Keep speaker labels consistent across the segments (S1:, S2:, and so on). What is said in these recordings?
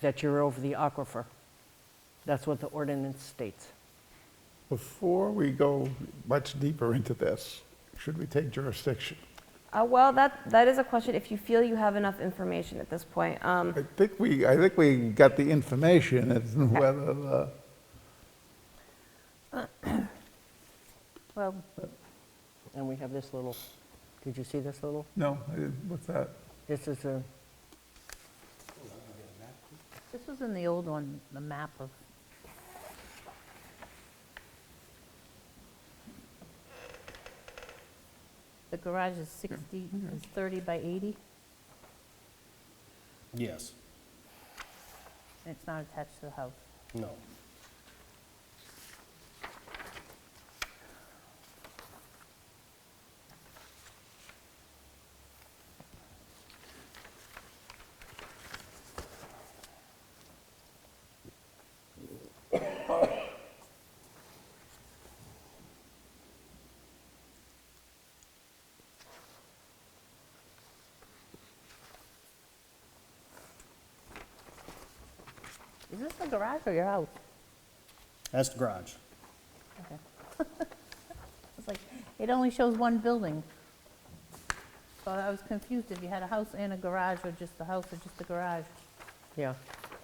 S1: that you're over the aquifer. That's what the ordinance states.
S2: Before we go much deeper into this, should we take jurisdiction?
S3: Uh, well, that, that is a question, if you feel you have enough information at this point. Um,
S2: I think we, I think we got the information as to whether the,
S1: Well. And we have this little, did you see this little?
S2: no, I didn't- what's that?
S1: This is a,
S4: This was in the old one, the map of, the garage is 60, is 30 by 80,
S5: Yes,
S4: and it's not attached to the house.
S5: no.
S4: Is this the garage or your house?
S5: That's the garage.
S4: It's like, it only shows one building. So I was confused if you had a house and a garage, or just the house or just the garage.
S1: yeah.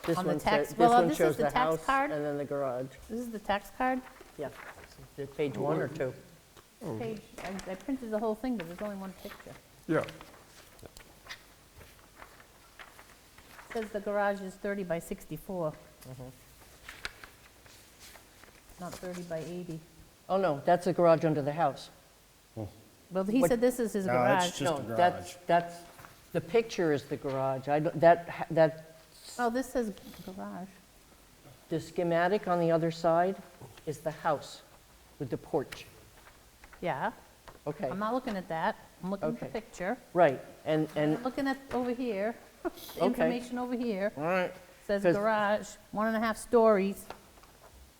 S1: This
S4: On the
S1: one sa-
S4: tax-
S1: this
S4: well,
S1: one
S4: this is
S1: shows
S4: the tax
S1: house
S4: card.
S1: And then the garage,
S4: This is the tax card
S1: yeah. Is it Page one or two?
S4: page. I- I printed the whole thing, but there's only one picture.
S2: Yeah,
S4: Says the garage is 30 by 64.
S1: Mm-hmm.
S4: Not 30 by 80.
S1: Oh, no, that's the garage under the house.
S4: Well, he
S1: What-
S4: said this is his
S5: No, that's
S4: garage.
S5: ju- Just
S1: No,
S5: the
S1: that's-
S5: garage.
S1: That's, the picture is the garage. I, don't- that, ha- that,
S4: Oh, this says garage.
S1: the schematic on the other side is the house with the porch.
S4: Yeah,
S1: Okay,
S4: I'm not looking at that. I'm looking at the
S1: Okay.
S4: picture.
S1: right, and, and,
S4: I'm looking at over here, the
S1: Okay.
S4: information over here.
S1: all right,
S4: Says
S1: 'Cause-
S4: garage, one and a half stories,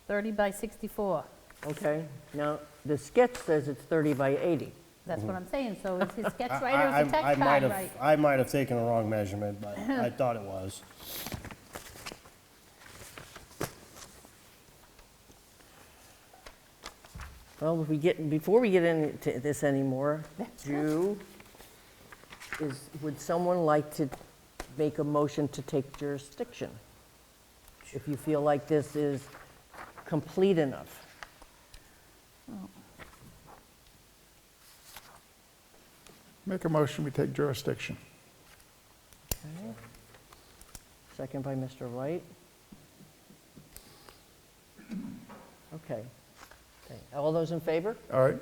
S4: 30 by 64.
S1: okay. Now, the sketch says it's 30 by 80.
S4: That's what I'm saying, so is his sketch
S5: Mm-hmm. I-
S4: right or
S5: I-
S4: is the
S5: I
S4: text
S5: might
S4: card
S5: have-
S4: right?
S5: I might have taken a wrong measurement, but I thought it was.
S1: Well, if we get, before we get into this anymore, do, is, would someone like to make a motion to take jurisdiction? If you feel like this is complete enough.
S2: make a motion, we take jurisdiction.
S1: Second by Mr. Light. Okay. Okay. All those in favor?
S2: All right,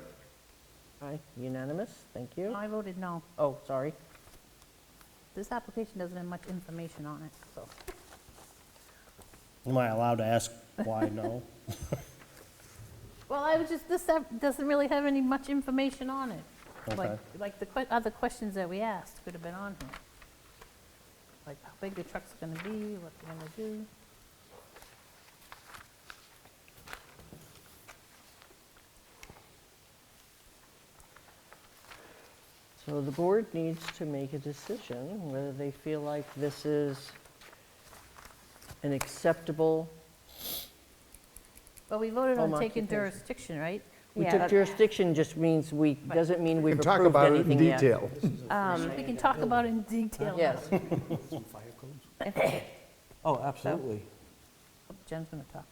S1: Aye, unanimous, thank you.
S4: I voted no.
S1: Oh, sorry.
S4: This application doesn't have much information on it, so.
S5: Am I allowed to ask why no?
S4: Well, I was just, this have- doesn't really have any much information on it. Like,
S5: Okay.
S4: like the que- other questions that we asked could have been on here. Like how big the truck's gonna be, what they're gonna do.
S1: So the board needs to make a decision whether they feel like this is an acceptable,
S4: But we voted on
S1: Home
S4: taking
S1: occupation.
S4: jurisdiction, right?
S1: we
S3: Yeah,
S1: took
S3: that-
S1: jurisdiction just means we, doesn't mean
S2: we
S1: we've
S2: can talk
S1: approved
S2: about it in
S1: anything yet.
S2: detail.
S4: We can talk about it in detail.
S1: Um, Yes,
S6: Oh, absolutely.
S4: Oh, Jen's gonna talk.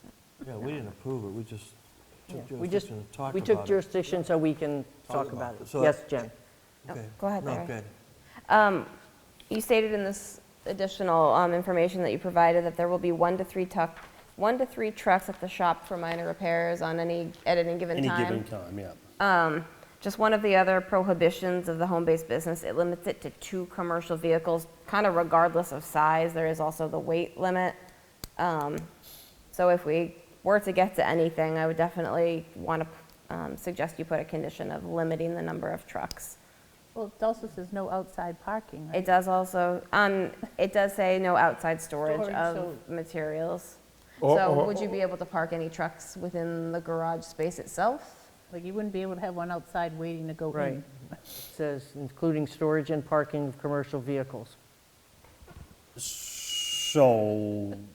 S6: Yeah, we didn't approve it, we just took
S1: we just,
S6: jurisdiction to talk about it.
S1: we took jurisdiction so we can talk
S6: about
S1: about
S6: it.
S1: it.
S6: So-
S1: Yes, Jen?
S6: Okay.
S3: Go ahead,
S6: No,
S3: Larry.
S6: good.
S3: Um, You stated in this additional um, information that you provided that there will be one to three tuck, one to three trucks at the shop for minor repairs on any, at any given
S5: Any
S3: time.
S5: given time, yeah.
S3: Just one of the other prohibitions of the home-based business, it limits it to two commercial vehicles, kind of regardless of size. There is also the weight limit. Um, So if we were to get to anything, I would definitely want to suggest you put a condition of limiting the number of trucks.
S4: Well, it also says no outside parking, right?
S3: It does also, um, it does say no outside storage
S4: Storage,
S3: of
S4: so-
S3: materials.
S2: Or-
S3: So
S2: or-
S3: would you be able to park any trucks within the garage space itself?
S4: Like you wouldn't be able to have one outside waiting to go
S1: Right.
S4: in.
S1: Says including storage and parking of commercial vehicles.
S5: So